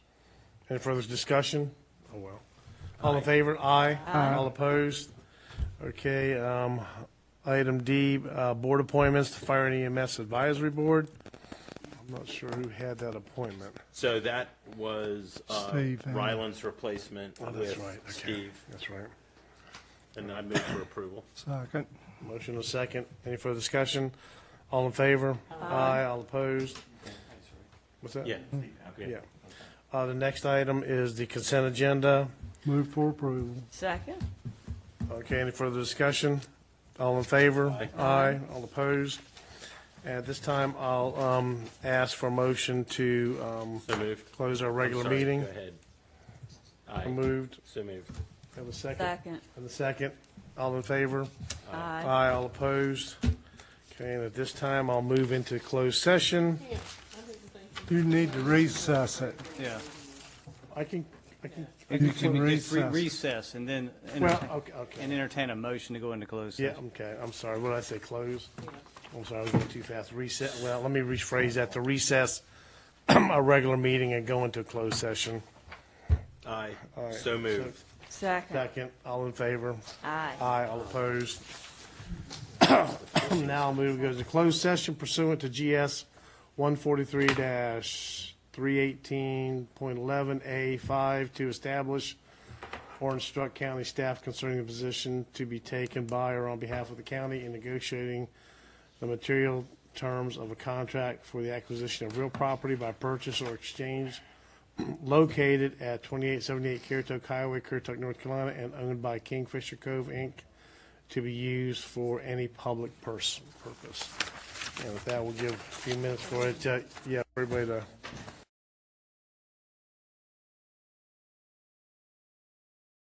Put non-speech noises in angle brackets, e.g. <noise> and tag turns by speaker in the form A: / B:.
A: Any further discussion? Oh, well. All in favor? Aye.
B: Aye.
A: All opposed? Okay, um, item D, uh, board appointments, the Fire and EMS Advisory Board. I'm not sure who had that appointment.
C: So that was uh,
B: Steve, uh,
C: Ryland's replacement
A: Oh, that's
C: with
A: right. Okay.
C: Steve,
A: That's right.
C: and I move for approval.
B: Second.
A: Motion and a second. Any further discussion? All in favor? Aye. All opposed? What's that?
C: Yeah.
A: Yeah. Uh, the next item is the consent agenda.
B: Move for approval.
D: Second.
A: Okay, any further discussion? All in favor?
C: Aye.
A: All opposed? At this time, I'll um, ask for a motion to um,
C: So moved.
A: close our regular
C: Sorry,
A: meeting.
C: Go ahead. Aye,
A: Moved.
C: so moved.
A: Have a second.
D: Second. Uh,
A: Have a second. All in favor?
D: Aye.
A: Aye. All opposed? Okay, and at this time, I'll move into closed session.
B: You need to recess it.
E: Yeah,
A: I can, I can,
E: you
B: You can
E: can just re-
B: recess.
E: recess and then, enter-
A: well, okay, okay.
E: and entertain a motion to go into closed
A: Yeah,
E: session.
A: okay, I'm sorry, what did I say, close? I'm sorry, I was going too fast, reset, well, let me rephrase that, to recess <clears throat> a regular meeting and go into a closed session.
C: Aye,
A: Aye.
C: so moved.
D: Second.
A: Second, all in favor?
D: Aye.
A: Aye, all opposed? <clears throat> Now I'll move, goes to closed session pursuant to GS 143-318.11A5 to establish or instruct county staff concerning the position to be taken by or on behalf of the county in negotiating the material terms of a contract for the acquisition of real property by purchase or exchange located at 2878 Currituck Highway, Currituck, North Carolina, and owned by Kingfisher Cove, Inc., to be used for any public pers- purpose. And with that, we'll give a few minutes for it, to- yeah, Uh, everybody to